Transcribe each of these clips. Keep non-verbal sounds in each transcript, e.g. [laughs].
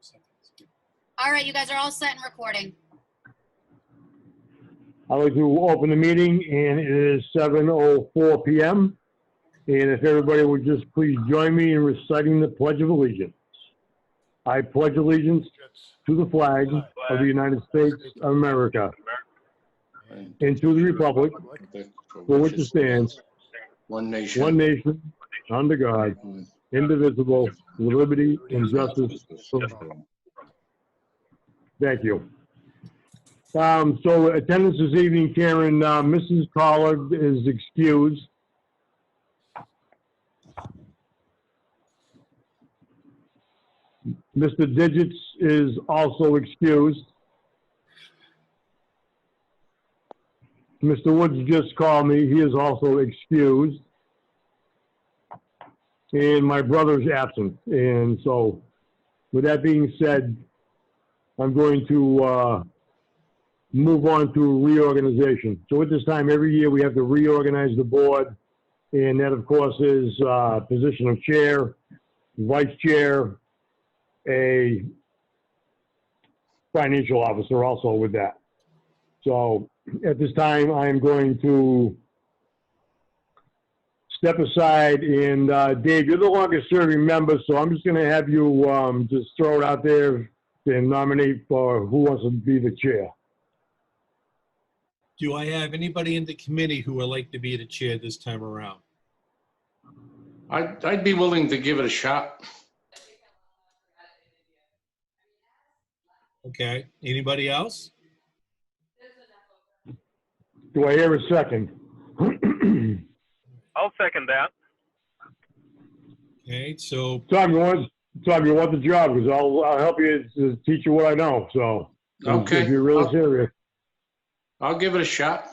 something. It's good. All right, you guys are all set and recording. I'd like to open the meeting, and it is 7:04 PM. And if everybody would just please join me in reciting the Pledge of Allegiance. I pledge allegiance to the flag of the United States of America and to the republic for which it stands, One nation. one nation, under God, indivisible, with liberty and justice for all. Thank you. Um, so attendance this evening, Karen, uh, Mrs. Collard is excused. Mr. Digits is also excused. Mr. Woods just called me. He is also excused. And my brother's absent. And so with that being said, I'm going to uh, move on to reorganization. So at this time, every year, we have to reorganize the board, and that, of course, is uh, position of chair, vice chair, a financial officer also with that. So at this time, I am going to step aside, and uh, Dave, you're the longest-serving member, so I'm just going to have you um, just throw it out there and nominate for who wants to be the chair. Do I have anybody in the committee who would like to be the chair this time around? I'd, I'd be willing to give it a shot. Okay, anybody else? Do I hear a second? [clears throat] I'll second that. Okay, so, Tom, you want, Tom, you want the job, because I'll, I'll help you to teach you what I know, so. If Okay, you're Oh. really I'll, serious. I'll give it a shot.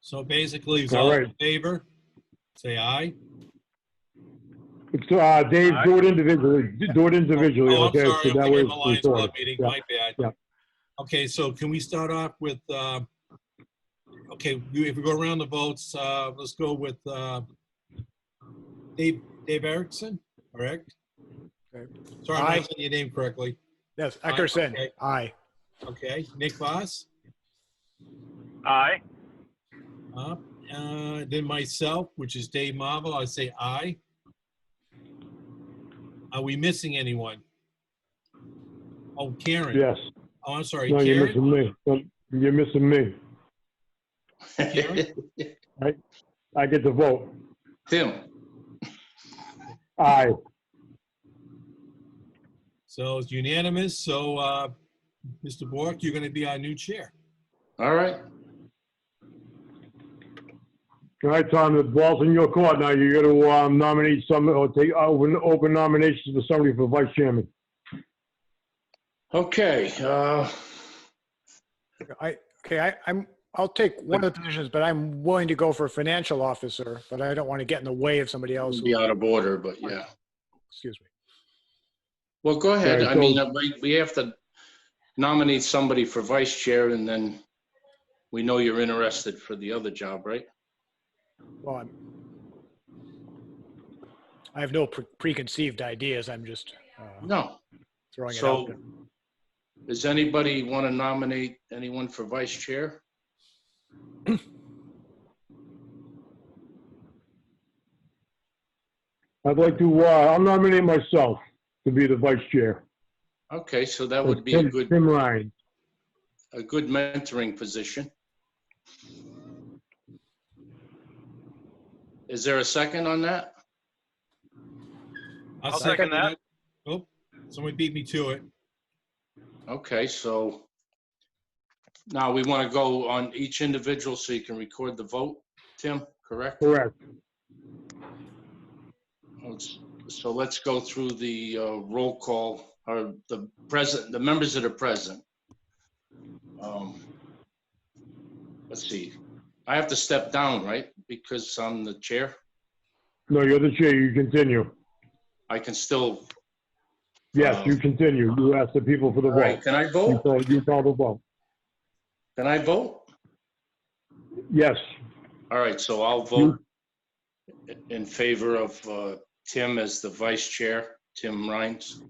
so basically, is All all in right. favor? Say aye. It's, uh, Dave, do it individually, do it individually, Oh, I'm okay? sorry, so I'm that thinking way of it's Lions sorted. Club meeting, Yeah. my Yeah. bad. Okay, so can we start off with, uh, okay, you- if we go around the votes, uh, let's go with uh, Dave, Dave Erickson, correct? Okay. Sorry, I'm Aye. not saying your name correctly. Yes, Aye, Eckerson. okay. Aye. Okay, Nick Voss? Aye. Uh, uh, Then myself, which is Dave Marvel, I say aye. Are we missing anyone? Oh, Karen. Yes, Oh, I'm sorry, no, Karen. you're missing me, No, you're missing me, I get to vote, [laughs] Tim, aye, So it's unanimous. So, uh, Mr. Bork, you're going to be our new chair. all right. all right, Tom, the ball's in your court now, you gotta, um, nominate some, or take, uh, open, open nominations for somebody for vice chairman. Okay, uh, I, okay, I, I'm, I'll take one of the positions, but I'm willing to go for financial officer, but I don't want to get in the way of somebody else. it'll who- be out of order, but yeah. Excuse me. Well, go ahead. All right, I so- mean, uh, we, we have to nominate somebody for vice chair and then we know you're interested for the other job, right? Well, I'm, I have no pre- preconceived ideas. I'm just uh, No. throwing it out. So there. does anybody want to nominate anyone for vice chair? I'd like to, uh, I'll nominate myself to be the vice chair. Okay, so that would be a Tim- good, Tim Ryan. a good mentoring position. Is there a second on that? I'll second that. Oh, someone beat me to it. Okay, so now we want to go on each individual so you can record the vote, Tim, correct? Correct. Let's- So let's go through the uh, roll call, or the present, the members that are present. Um, Let's see, I have to step down, right? Because I'm the chair, No, you're the chair. You continue. I can still, Yes, you continue. You ask the people for the Oh. all right, vote. can I You vote? call, you call the vote. Can I vote? Yes, All right, so I'll vote in favor of uh, Tim as the vice chair, Tim Rhines.